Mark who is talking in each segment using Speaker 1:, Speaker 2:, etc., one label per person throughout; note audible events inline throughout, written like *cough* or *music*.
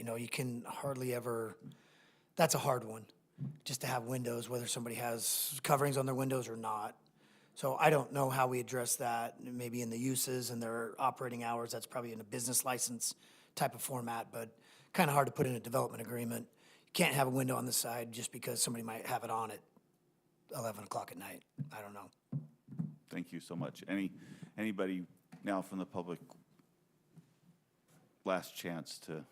Speaker 1: you know, you can hardly ever, that's a hard one, just to have windows, whether somebody has coverings on their windows or not. So I don't know how we address that, maybe in the uses and their operating hours, that's probably in a business license type of format, but kind of hard to put in a development agreement. You Can't have a window on the side just because somebody might have it on at eleven o'clock at night, I don't know.
Speaker 2: Thank you so much. Any, anybody now from the public, last chance to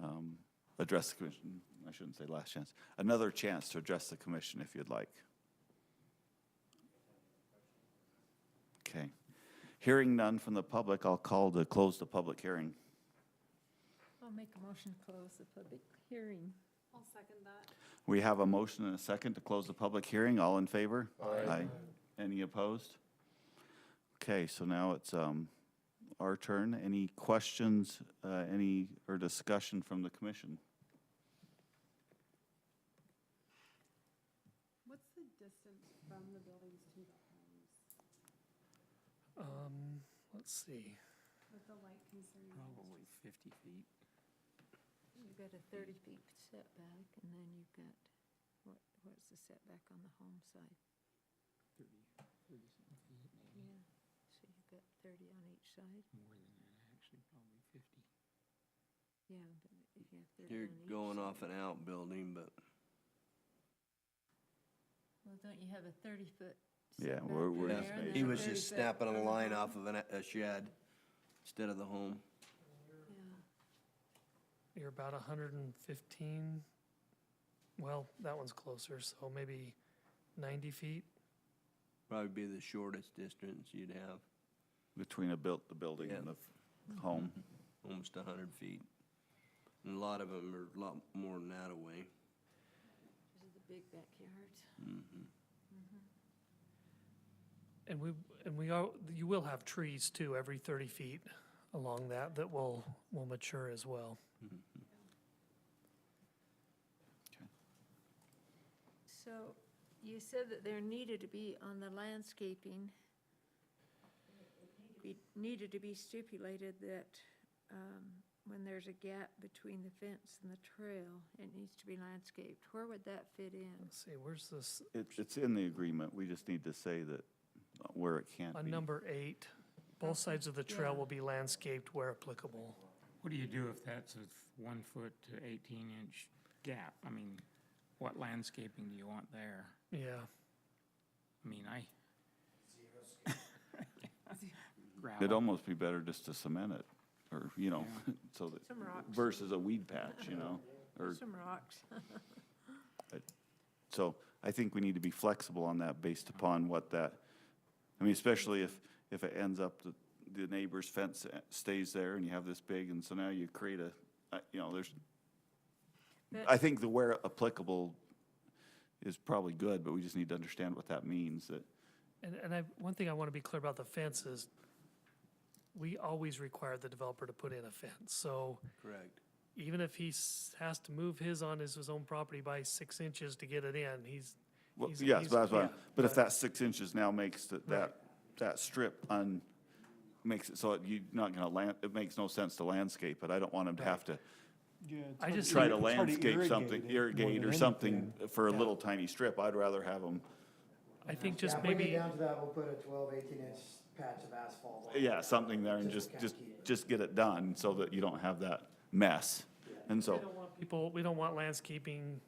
Speaker 2: um, address the commission? I shouldn't say last chance, another chance to address the commission if you'd like. Okay. Hearing none from the public, I'll call to close the public hearing.
Speaker 3: I'll make a motion to close the public hearing.
Speaker 4: I'll second that.
Speaker 2: We have a motion and a second to close the public hearing. All in favor? Aye. Any opposed? Okay, so now it's um, our turn. Any questions, uh, any, or discussion from the commission?
Speaker 4: What's the distance from the buildings to the homes
Speaker 5: Um, let's see,
Speaker 4: with the light concern?
Speaker 5: probably fifty feet.
Speaker 3: You've got a thirty feet setback, and then you've got, what, what's the setback on the home side? Yeah, so you've got thirty on each side,
Speaker 5: More than that, actually, probably fifty.
Speaker 3: yeah, but if you have thirty on
Speaker 6: You're
Speaker 3: each.
Speaker 6: going
Speaker 3: side-
Speaker 6: off an outbuilding, but
Speaker 3: Well, don't you have a thirty foot
Speaker 2: Yeah,
Speaker 3: setback
Speaker 2: we're-
Speaker 3: from
Speaker 2: we're
Speaker 3: there?
Speaker 2: in
Speaker 3: and
Speaker 2: space.
Speaker 3: then
Speaker 6: he
Speaker 3: a
Speaker 6: was
Speaker 3: 30
Speaker 6: just
Speaker 3: foot
Speaker 6: snapping a
Speaker 3: from the
Speaker 6: line
Speaker 3: home?
Speaker 6: off of an, a shed instead of the
Speaker 3: Yeah.
Speaker 6: home.
Speaker 5: You're about hundred and fifteen, well, that one's closer, so maybe ninety feet.
Speaker 6: Probably be the shortest distance you'd have,
Speaker 2: Between a built, the building and the f- home?
Speaker 6: almost a hundred feet. And a lot of them are a lot more than that away.
Speaker 3: This is the big backyard.
Speaker 5: And we, and we are, you will have trees too, every thirty feet along that, that will, will mature as well.
Speaker 3: So you said that there needed to be on the landscaping, be- needed to be stipulated that um, when there's a gap between the fence and the trail, it needs to be landscaped. Where would that fit in?
Speaker 5: Let's see, where's this,
Speaker 2: It's, it's in the agreement. We just need to say that uh, where it can't
Speaker 5: on
Speaker 2: be.
Speaker 5: number eight, both sides of the trail
Speaker 3: Yeah.
Speaker 5: will be landscaped where applicable.
Speaker 7: What do you do if that's a one foot to eighteen inch gap? I mean, what landscaping do you want there?
Speaker 5: Yeah,
Speaker 7: I mean, I.
Speaker 2: It'd
Speaker 7: Gravel,
Speaker 2: almost be better just to cement it, or, you know, *laughs* so that,
Speaker 3: Some rocks.
Speaker 2: versus a weed patch, you know? Or,
Speaker 3: Some rocks.
Speaker 2: so I think we need to be flexible on that based upon what that, I mean, especially if, if it ends up that the neighbor's fence uh, stays there and you have this big, and so now you create a, I- you know, there's,
Speaker 3: But-
Speaker 2: I think the where applicable is probably good, but we just need to understand what that means, that,
Speaker 5: and, and I, one thing I want to be clear about the fence is we always require the developer to put in a fence, so
Speaker 6: Correct.
Speaker 5: even if he s- has to move his on his, his own property by six inches to get it in, he's.
Speaker 2: well,
Speaker 5: he's-
Speaker 2: yes,
Speaker 5: he's-
Speaker 2: that's why,
Speaker 5: yeah,
Speaker 2: but if that six inches now makes that, that,
Speaker 5: Right.
Speaker 2: that strip un, makes it so it- you're not gonna land, it makes no sense to landscape it, I don't want him to have to
Speaker 5: I just,
Speaker 2: try to
Speaker 8: It's hard to
Speaker 2: landscape
Speaker 8: irrigate
Speaker 2: something,
Speaker 8: it more
Speaker 2: irrigate or
Speaker 8: than
Speaker 2: something for a little tiny strip, I'd rather have them,
Speaker 5: I think just maybe,
Speaker 1: to that, we'll put a 12, 18 inch patch of asphalt.
Speaker 2: yeah, something there and just, just, just get it done so that you don't have that mess. And so,
Speaker 5: people, we don't want landscaping,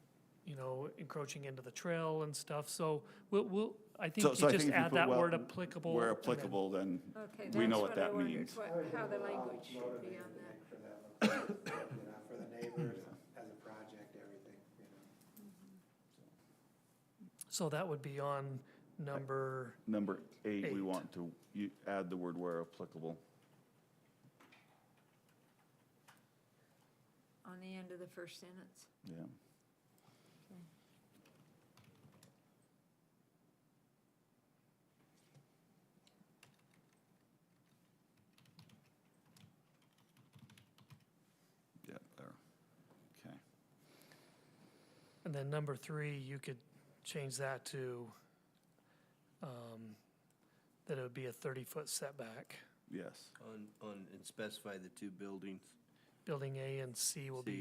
Speaker 5: you know, encroaching into the trail and stuff, so we'll, we'll, I think
Speaker 2: so,
Speaker 5: you
Speaker 2: so I
Speaker 5: just
Speaker 2: think if you
Speaker 5: add
Speaker 2: put
Speaker 5: that
Speaker 2: well,
Speaker 5: word applicable.
Speaker 2: where
Speaker 5: and then-
Speaker 2: applicable, then
Speaker 3: Okay,
Speaker 2: we
Speaker 3: that's
Speaker 2: know what
Speaker 3: what I
Speaker 2: that
Speaker 3: wondered,
Speaker 2: means.
Speaker 3: what, how the language should be on that.
Speaker 8: For that, *coughs* you know, for the neighbors, as a project, everything, you know.
Speaker 5: So that would be on number,
Speaker 2: Number eight, we
Speaker 5: Eight.
Speaker 2: want to, you add the word where applicable.
Speaker 3: On the end of the first sentence.
Speaker 2: Yeah. Yeah, there. Okay.
Speaker 5: and then number three, you could change that to, um, that it would be a thirty-foot setback.
Speaker 2: Yes.
Speaker 6: On, on, and specify the two buildings.
Speaker 5: building A and C will be